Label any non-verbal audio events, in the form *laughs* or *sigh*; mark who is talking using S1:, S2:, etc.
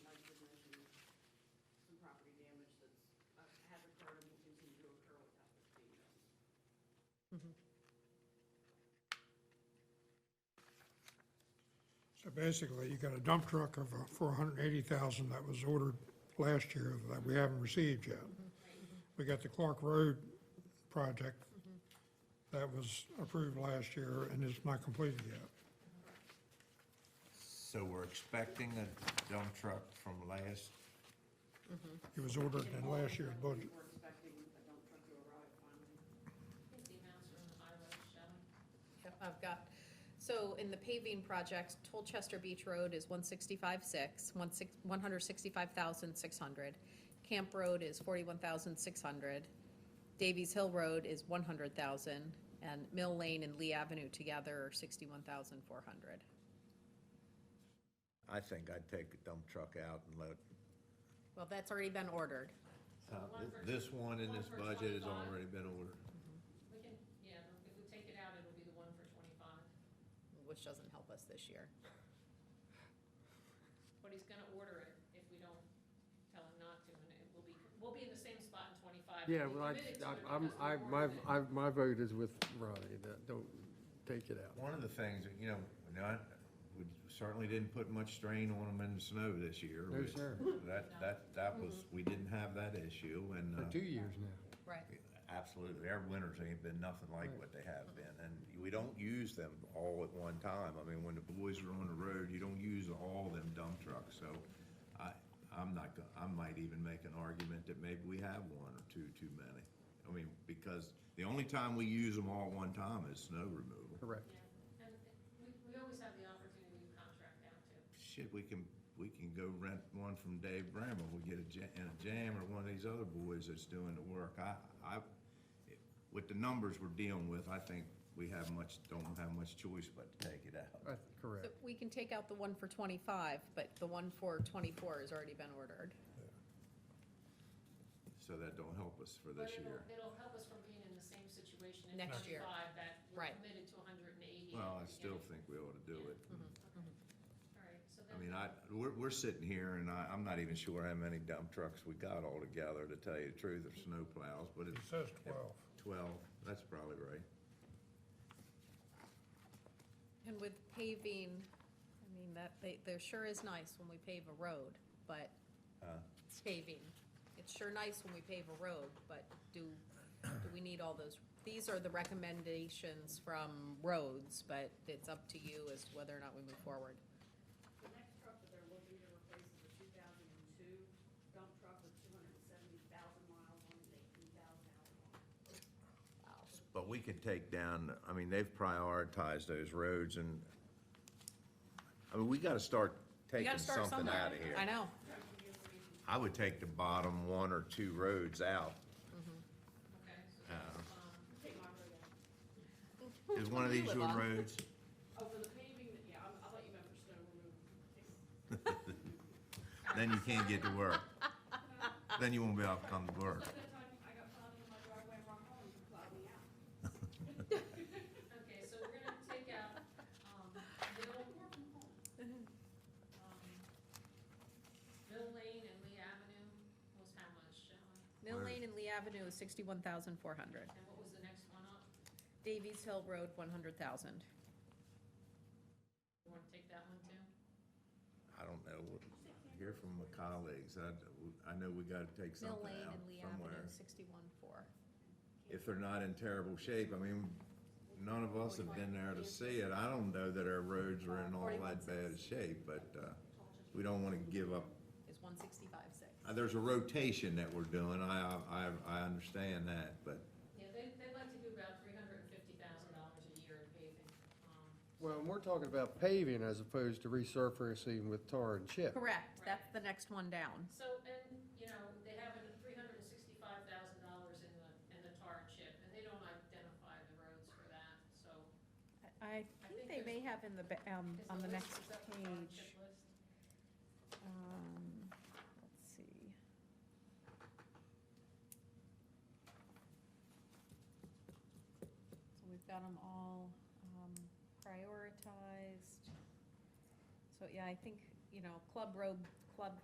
S1: uh,
S2: So basically, you got a dump truck of uh, four hundred and eighty thousand that was ordered last year that we haven't received yet. We got the Clark Road project that was approved last year and is not completed yet.
S3: So we're expecting a dump truck from last,
S2: It was ordered in last year's budget.
S1: We're expecting a dump truck to arrive finally.
S4: The amounts are in the highway, Shannon.
S5: Yep, I've got, so in the paving project, Tolchester Beach Road is one sixty-five six, one six, one hundred sixty-five thousand six hundred. Camp Road is forty-one thousand six hundred. Davies Hill Road is one hundred thousand, and Mill Lane and Lee Avenue together are sixty-one thousand four hundred.
S3: I think I'd take a dump truck out and let,
S5: Well, that's already been ordered.
S3: Uh,
S4: one for-
S3: this one in this
S4: one for
S3: budget has
S4: 25.
S3: already been ordered.
S4: We can, yeah, if we take it out, it'll be the one for twenty-five.
S5: which doesn't help us this year.
S4: But he's gonna order it if we don't tell him not to, and it will be, we'll be in the same spot in twenty-five.
S6: Yeah,
S4: We
S6: well,
S4: committed to
S6: I,
S4: it
S6: I- I'm,
S4: because we
S6: I, my,
S4: ordered it.
S6: I, my vote is with Ronnie, that don't take it out.
S3: One of the things, that, you know, we're not, we certainly didn't put much strain on them in the snow this year.
S6: No,
S3: We-
S6: sir.
S3: That, that, that was, we didn't have that issue and.
S6: For
S3: uh,
S6: two years now.
S5: Right.
S3: Absolutely. Our winters ain't been nothing like what they have been, and we don't use them all at one time. I mean, when the boys are on the road, you don't use all them dump trucks, so I, I'm not go, I might even make an argument that maybe we have one or two too many. I mean, because the only time we use them all at one time is snow removal.
S6: Correct.
S4: Yeah, and we, we always have the opportunity to contract out too.
S3: Shit, we can, we can go rent one from Dave Bramble, we get a jam, and a jam or one of these other boys that's doing the work. I, I, with the numbers we're dealing with, I think we have much, don't have much choice but to take it out.
S6: That's correct.
S5: So we can take out the one for twenty-five, but the one for twenty-four has already been ordered.
S3: So that don't help us for
S4: But
S3: this
S4: it'll,
S3: year.
S4: it'll help us from being in the same situation in
S5: Next year.
S4: twenty-five that we're
S5: Right.
S4: committed to hundred and eighty.
S3: Well, I still think we ought to do it.
S4: All right, so
S3: I
S4: then.
S3: mean, I, we're, we're sitting here and I, I'm not even sure how many dump trucks we got all together, to tell you the truth, of snow plows, but
S2: It
S3: it's.
S2: says twelve.
S3: Twelve, that's probably right.
S5: And with paving, I mean, that, they, there sure is nice when we pave a road, but
S3: Uh.
S5: it's paving. It's sure nice when we pave a road, but do, do we need all those? These are the recommendations from roads, but it's up to you as to whether or not we move forward.
S1: The next truck that they're looking to replace is a two thousand and two dump truck with two hundred and seventy thousand miles on it, eighteen thousand hours on it.
S3: But we could take down, I mean, they've prioritized those roads and, I mean, we gotta start
S5: We
S3: taking
S5: gotta start
S3: something
S5: somewhere.
S3: out of here.
S5: I know,
S3: I would take the bottom one or two roads
S5: *laughs*
S3: out.
S4: Okay, so
S3: Uh,
S1: Take my road out.
S3: Is one of
S5: You
S3: these
S5: live
S3: your
S5: on.
S3: roads?
S1: Oh, for the paving, yeah, I'll, I'll let you know for snow removal.
S3: Then you can't get to work.
S5: *laughs*
S3: Then you won't be able to come to work.
S1: At that time, I got plowed in my driveway and rock home, you plowed me out.
S4: Okay, so we're gonna take out, um, Mill. um, Mill Lane and Lee Avenue was how much, Shannon?
S5: Mill
S3: Where-
S5: Lane and Lee Avenue is sixty-one thousand four hundred.
S4: And what was the next one up?
S5: Davies Hill Road, one hundred thousand.
S4: You wanna take that one too?
S3: I don't know. Hear from my colleagues. I, I know we gotta take
S5: Mill
S3: something
S5: Lane
S3: out
S5: and Lee Avenue,
S3: somewhere.
S5: sixty-one four.
S3: If they're not in terrible shape, I mean, none of us have been there to see it. I don't know that our roads are in all that bad shape, but, uh, we don't wanna give up
S5: Is one sixty-five six.
S3: Uh, There's a rotation that we're doing, I, I, I understand that, but
S4: Yeah, they, they'd like to do about three hundred and fifty thousand dollars a year in paving. Um,
S6: Well, and we're talking about paving as opposed to resurfacing with tar and chip.
S5: Correct, that's the next one down.
S4: So, and, you know, they have a three hundred and sixty-five thousand dollars in the, in the tar and chip, and they don't identify the roads for that, so.
S5: I think they may have in the, ba- um,
S4: Is
S5: on the
S4: list-
S5: next
S4: is that the tar and
S5: page.
S4: chip list?
S5: Um, let's see. So we've got them all, um, prioritized. So, yeah, I think, you know, Club Road, Club